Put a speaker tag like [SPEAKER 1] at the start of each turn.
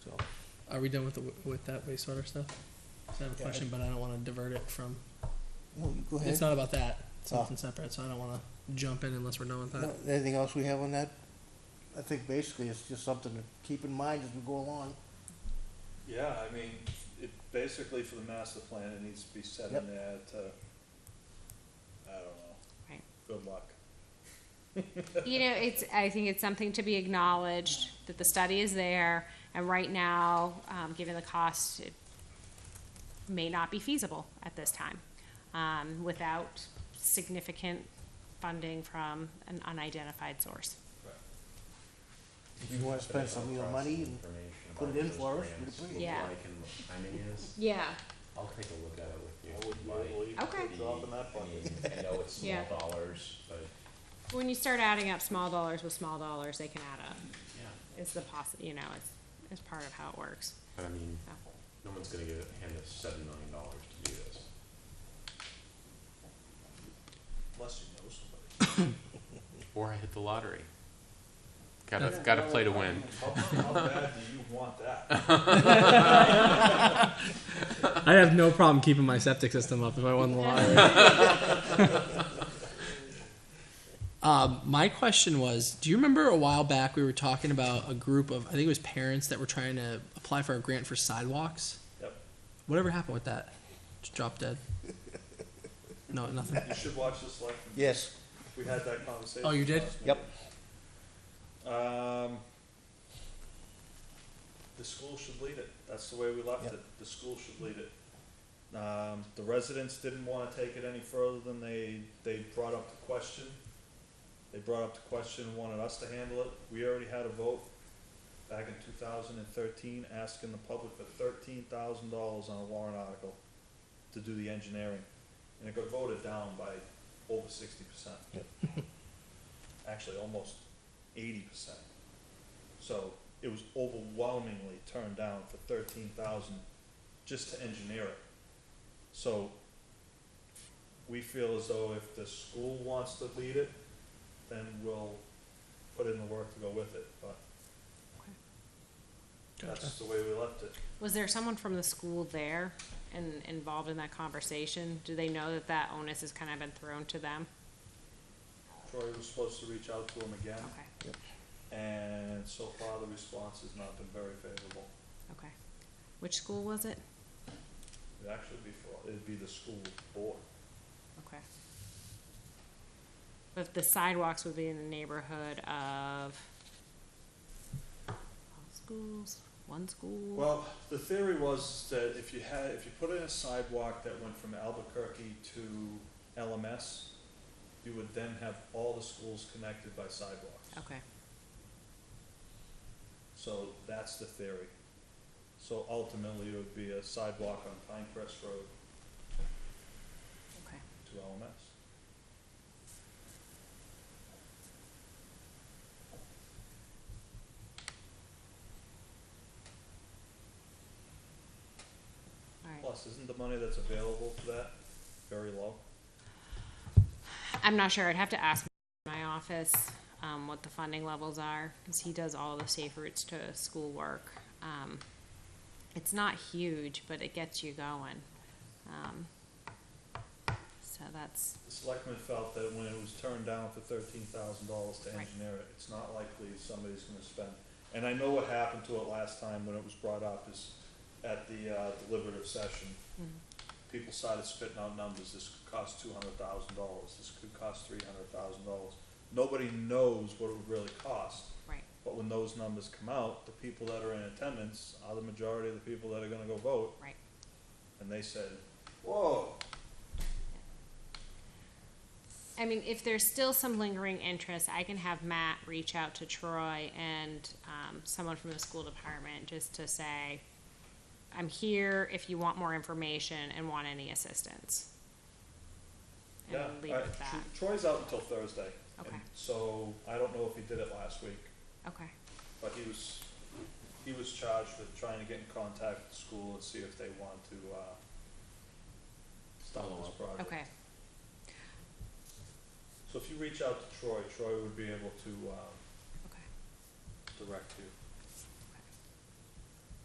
[SPEAKER 1] Are we done with the, with that wastewater stuff? I have a
[SPEAKER 2] Yeah.
[SPEAKER 1] question, but I don't wanna divert it from,
[SPEAKER 2] Well, go ahead.
[SPEAKER 1] it's not about that, it's
[SPEAKER 2] Oh.
[SPEAKER 1] something separate, so I don't wanna jump in unless we're done with
[SPEAKER 2] No,
[SPEAKER 1] that.
[SPEAKER 2] anything else we have on that? I think basically it's just something to keep in mind as we go along.
[SPEAKER 3] Yeah, I mean, it, basically for the master plan, it needs to be set
[SPEAKER 2] Yep.
[SPEAKER 3] in there to, I don't know.
[SPEAKER 4] Right.
[SPEAKER 3] Good luck.
[SPEAKER 4] You know, it's, I think it's something to be acknowledged, that the study is there, and right now, um, given the cost, it may not be feasible at this time, um, without significant funding from an unidentified source.
[SPEAKER 2] If you wanna spend some of your money and put it in for us, we'd appreciate it.
[SPEAKER 4] Yeah.
[SPEAKER 5] Like and what the timing is,
[SPEAKER 4] Yeah,
[SPEAKER 5] I'll take a look at it with you.
[SPEAKER 3] I wouldn't be
[SPEAKER 5] Like,
[SPEAKER 3] able to even
[SPEAKER 4] Okay.
[SPEAKER 3] put a drop in that
[SPEAKER 5] I
[SPEAKER 3] bucket.
[SPEAKER 5] mean, I know it's
[SPEAKER 4] Yeah.
[SPEAKER 5] small dollars, but
[SPEAKER 4] when you start adding up small dollars with small dollars, they can add up,
[SPEAKER 5] yeah,
[SPEAKER 4] it's the possi, you know, it's, it's part of how it works.
[SPEAKER 5] but I mean,
[SPEAKER 4] so.
[SPEAKER 5] no one's gonna give, hand us seven million dollars to do this.
[SPEAKER 3] Unless you know somebody.
[SPEAKER 6] Or I hit the lottery. Gotta, gotta play to win.
[SPEAKER 3] How, how bad do you want that?
[SPEAKER 1] I have no problem keeping my septic system up if I won the lottery. um, my question was, do you remember a while back we were talking about a group of, I think it was parents that were trying to apply for a grant for sidewalks?
[SPEAKER 3] Yep.
[SPEAKER 1] Whatever happened with that? Just drop dead. No, nothing.
[SPEAKER 3] You should watch this like,
[SPEAKER 2] Yes,
[SPEAKER 3] we had that conversation.
[SPEAKER 1] Oh, you did?
[SPEAKER 3] last
[SPEAKER 2] Yep.
[SPEAKER 3] meeting. Um, the school should lead it. That's the way we left
[SPEAKER 2] Yep.
[SPEAKER 3] it. The school should lead it. Um, the residents didn't wanna take it any further than they, they brought up the question. They brought up the question and wanted us to handle it. We already had a vote back in two thousand and thirteen, asking the public for thirteen thousand dollars on a warrant article to do the engineering. And it got voted down by over sixty percent. Actually, almost eighty percent. So it was overwhelmingly turned down for thirteen thousand just to engineer it. So we feel as though if the school wants to lead it, then we'll put in the work to go with it, but that's the way we left it.
[SPEAKER 4] Was there someone from the school there and involved in that conversation? Do they know that that onus has kind of been thrown to them?
[SPEAKER 3] Troy was supposed to reach out to him again,
[SPEAKER 4] Okay,
[SPEAKER 3] and so far the response has not been very favorable.
[SPEAKER 4] okay. Which school was it?
[SPEAKER 3] It'd actually be for, it'd be the school board.
[SPEAKER 4] Okay. But the sidewalks would be in the neighborhood of all schools, one school?
[SPEAKER 3] Well, the theory was that if you had, if you put in a sidewalk that went from Albuquerque to LMS, you would then have all the schools connected by sidewalks.
[SPEAKER 4] Okay,
[SPEAKER 3] So that's the theory. So ultimately, it would be a sidewalk on Pinecrest Road
[SPEAKER 4] okay.
[SPEAKER 3] to LMS.
[SPEAKER 4] All right.
[SPEAKER 3] Plus, isn't the money that's available for that very low?
[SPEAKER 4] I'm not sure. I'd have to ask my office um, what the funding levels are because he does all the safe routes to school work. Um, it's not huge, but it gets you going. Um, so that's
[SPEAKER 3] The selectmen felt that when it was turned down for thirteen thousand dollars to
[SPEAKER 4] Right.
[SPEAKER 3] engineer it, it's not likely somebody's gonna spend. And I know what happened to it last time when it was brought up is at the, uh, deliberative session.
[SPEAKER 4] Hmm.
[SPEAKER 3] People started spitting out numbers, this could cost two hundred thousand dollars, this could cost three hundred thousand dollars. Nobody knows what it would really cost,
[SPEAKER 4] right.
[SPEAKER 3] but when those numbers come out, the people that are in attendance are the majority of the people that are gonna go vote.
[SPEAKER 4] Right.
[SPEAKER 3] And they said, whoa,
[SPEAKER 4] I mean, if there's still some lingering interest, I can have Matt reach out to Troy and um, someone from the school department just to say, I'm here if you want more information and want any assistance. And
[SPEAKER 3] Yeah,
[SPEAKER 4] leave
[SPEAKER 3] I-
[SPEAKER 4] it at
[SPEAKER 3] Tro-
[SPEAKER 4] that.
[SPEAKER 3] Troy's out until Thursday. and
[SPEAKER 4] Okay.
[SPEAKER 3] So I don't know if he did it last week,
[SPEAKER 4] Okay.
[SPEAKER 3] but he was, he was charged with trying to get in contact with the school and see if they want to, uh, stop
[SPEAKER 5] Follow
[SPEAKER 3] this
[SPEAKER 5] up.
[SPEAKER 3] project.
[SPEAKER 4] Okay,
[SPEAKER 3] So if you reach out to Troy, Troy would be able to, um,
[SPEAKER 4] okay,
[SPEAKER 3] direct you.